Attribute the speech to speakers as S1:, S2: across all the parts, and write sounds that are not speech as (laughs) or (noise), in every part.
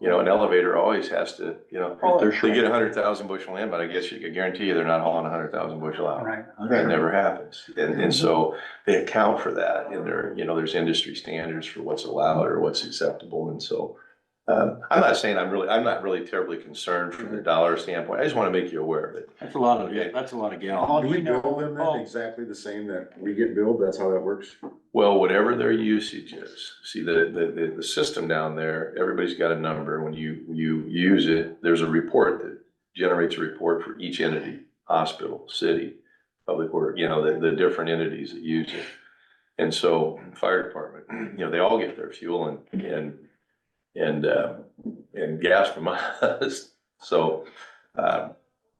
S1: You know, an elevator always has to, you know,
S2: Oh,
S3: They're
S1: they
S3: sure.
S1: get a hundred thousand bushel in, but I guess you could guarantee you they're not hauling a hundred thousand bushel out.
S3: Right.
S1: That never happens. And, and so they account for that in their, you know, there's industry standards for what's allowed or what's acceptable. And so, um, I'm not saying I'm really, I'm not really terribly concerned from the dollar standpoint. I just want to make you aware of it.
S3: That's a lot of, that's a lot of gallons.
S4: Do we bill them then
S3: Oh.
S4: exactly the same that we get billed? That's how that works?
S1: Well, whatever their usage is, see the, the, the, the system down there, everybody's got a number. When you, you use it, there's a report that generates a report for each entity, hospital, city, public work, you know, the, the different entities that use it. And so fire department, (clears throat) you know, they all get their fuel and, and, and, uh, and gas from (laughs) us. So, uh,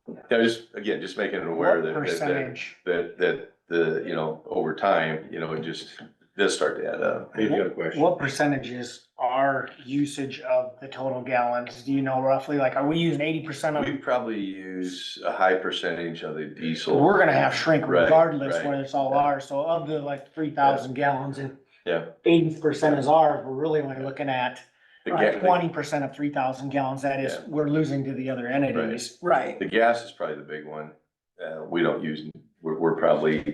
S1: I just, again, just making it aware that.
S3: What
S1: that- that-
S3: Percentage.
S1: that, that the, you know, over time, you know, it just does start to add up.
S4: Hey, you got a question?
S3: What
S4: Well,
S3: percentage is our usage of the total gallons? Do you know roughly? Like, are we using eighty percent of?
S1: We probably use a high percentage of the diesel.
S3: We're gonna have shrink
S1: Right,
S3: regardless
S1: right.
S3: whether it's all ours. So of the like three thousand gallons and
S1: Yeah.
S3: eighty percent is ours, we're really only looking at
S1: The ga-
S3: twenty percent of three thousand gallons. That is,
S1: Yeah.
S3: we're losing to the other entities.
S2: Right,
S1: The gas is probably the big one. Uh, we don't use, we're, we're probably,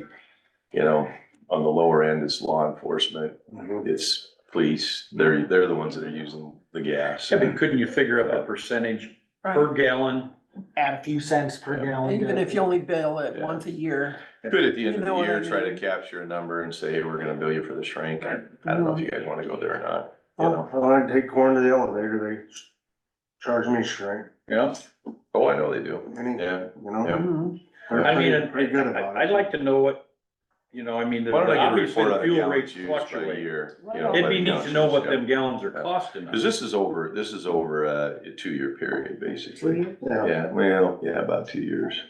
S1: you know, on the lower end, it's law enforcement,
S4: Mm-hmm.
S1: it's police. They're, they're the ones that are using the gas.
S5: Kevin, couldn't you figure up a percentage per
S2: right.
S5: gallon?
S3: Add a few cents per gallon.
S2: Even
S3: to-
S2: if you only bill it
S1: Yeah.
S2: once a year.
S1: Could at the
S2: You
S1: end of
S2: know
S1: the
S2: what I
S1: year, try to
S2: mean?
S1: capture a number and say, hey, we're gonna bill you for the shrink. I I
S2: Mm-hmm.
S1: don't know if you guys wanna go there or not,
S2: Oh.
S1: you know?
S4: I take corn to the elevator, they charge me shrink.
S5: Yeah.
S1: Oh, I know they do.
S4: Any-
S1: Yeah.
S4: You
S1: Yeah.
S4: know?
S2: Mhm.
S4: They're
S5: I mean,
S4: pretty- pretty good about
S5: I- I'd
S4: it.
S5: like to know what, you know, I mean, the-
S1: Why don't I get a
S5: obviously
S1: report
S5: the
S1: on the
S5: fuel rates
S1: gallons used by
S5: fluctuate.
S1: year? you
S3: Right.
S1: know,
S5: It'd
S1: by
S5: be
S1: the
S5: neat to
S1: gallons
S5: know
S1: used,
S5: what
S1: yeah.
S5: them gallons are costing.
S1: Cause this is over, this is over uh, a two-year period, basically.
S4: Yeah,
S1: Yeah, well, yeah, about two years,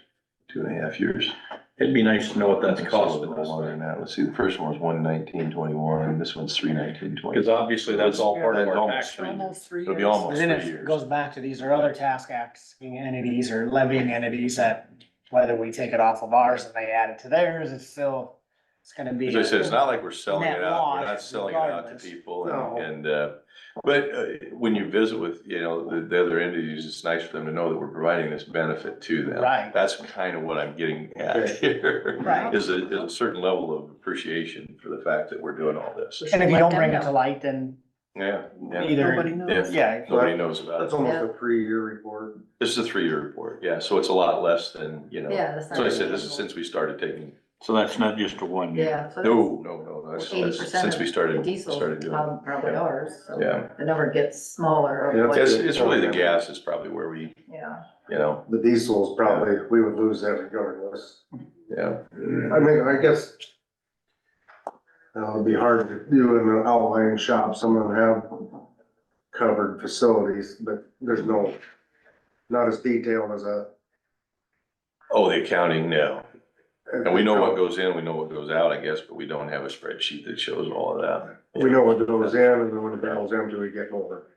S1: two and a half years.
S5: It'd be nice to know what that's
S1: It's a
S5: costing
S1: little Longer
S5: us.
S1: than that. Let's see, the first one was one nineteen twenty-one, and this one's three nineteen
S5: Cause
S1: twenty.
S5: obviously that's all part of
S1: That's
S5: our
S1: almost
S5: tax.
S1: three.
S5: rate.
S2: Almost three
S1: It'll be
S2: years.
S1: almost
S3: Then
S1: three
S3: it
S1: years.
S3: goes back to these are other task asking entities or levying entities that whether we take it off of ours and they add it to theirs, it's still, it's gonna be.
S1: As I said, it's not like we're selling it
S3: Net
S1: out,
S3: loss
S1: we're not selling it out to
S3: regardless.
S1: people
S4: No.
S1: and, and, uh, but, uh, when you visit with, you know, the, the other entities, it's nice for them to know that we're providing this benefit to them.
S3: Right.
S1: That's kind of what I'm getting at
S4: Right.
S1: here.
S2: Right.
S1: Is a, is a certain level of appreciation for the fact that we're doing all this.
S3: And if you don't bring it to light, then
S1: Yeah, yeah,
S3: either,
S2: Nobody knows.
S1: Yeah.
S3: yeah,
S1: nobody knows about
S4: That's
S1: it.
S4: almost a three-year report.
S1: This is a three-year report, yeah, so it's a lot less than, you know.
S6: Yeah. that's not
S1: So I said, this is
S6: reasonable.
S1: since we started taking,
S5: So that's not just a one year.
S6: Yeah. so
S1: no, no, no, that's,
S6: that's 80%
S1: that's uh, since we
S6: of the
S1: started,
S6: Diesel,
S1: started doing. it.
S6: um, probably
S1: Yeah.
S6: ours, so
S1: Yeah,
S6: the number gets smaller. of
S4: Yeah,
S6: what-
S1: it's, it's really the gas is probably where we,
S6: Yeah.
S1: you know,
S4: The diesel's probably, we would lose that regardless.
S1: yeah.
S4: I mean, I guess that would be hard to do in an outlying shop. Some of them have covered facilities, but there's no, not as detailed as a.
S1: Oh, the accounting, no. And we know what goes in, we know what goes out, I guess, but we don't have a spreadsheet that shows all of that.
S4: We know what goes in and then when it goes empty, we get over.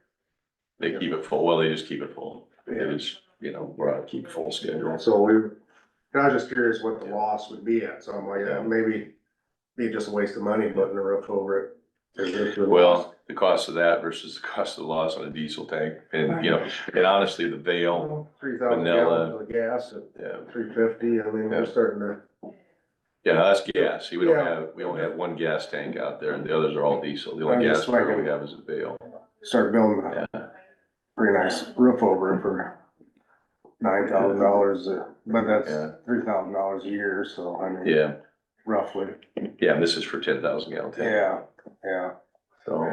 S1: They keep it full, well, they just keep it full. It is, you know, we're on a keep full schedule.
S4: So we, I was just curious what the loss would be at something like that. Maybe be just a waste of money putting a roof over it. Is this the loss?
S1: Well, the cost of that versus the cost of the loss on a diesel tank and, you know, and honestly, the veil,
S4: Three thousand
S1: vanilla.
S4: gallons of gas at
S1: yeah,
S4: three fifty. I mean,
S1: Yeah.
S4: we're starting to.
S1: Yeah, no, that's gas. See, we don't
S4: Yeah.
S1: have, we only have one gas tank out there and the others are all diesel. The
S4: I'm
S1: only gas
S4: just
S1: tank
S4: wondering.
S1: we have is a bale.
S4: start building a pretty nice roof over it for nine thousand dollars, uh, but that's
S1: Yeah.
S4: three thousand dollars a year, so I mean,
S1: Yeah,
S4: roughly,
S1: yeah, and this is for ten thousand gallon tank,
S4: yeah, yeah.
S1: so.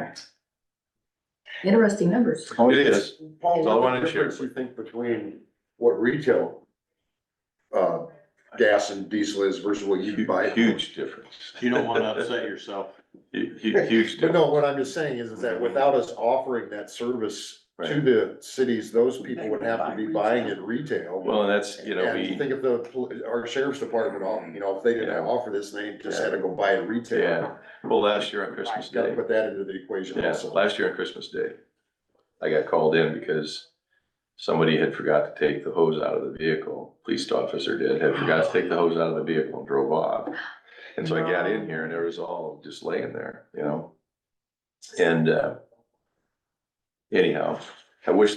S6: Interesting numbers.
S1: It is.
S4: Paul,
S1: That's all I
S4: what
S1: wanted to share.
S4: difference you think between what retail?
S7: uh, gas and diesel is versus what you buy.
S1: Huge, huge difference.
S5: You
S7: (laughs)
S5: don't wanna upset yourself.
S1: Hu- hu- Huge
S7: But
S1: difference.
S7: no, what I'm just saying is, is that without us offering that service to
S1: Right.
S7: the cities, those people
S2: They
S7: would
S2: would
S7: have
S2: buy
S7: to be
S2: retail.
S7: buying it retail.
S1: Well, and that's, you know,
S7: And
S1: we,
S7: think of the, pol- our sheriff's department, all, you know, if they
S1: Yeah.
S7: didn't offer this, they just had to go buy it retail.
S1: yeah, well, last year on Christmas
S7: Gotta
S1: Day,
S7: put that into the equation
S1: yeah,
S7: also.
S1: last year on Christmas Day, I got called in because somebody had forgot to take the hose out of the vehicle. Police officer did, had forgot to take the hose out of the vehicle and drove off. And so I got in here and it was all just laying there, you know? And, uh, anyhow, I wish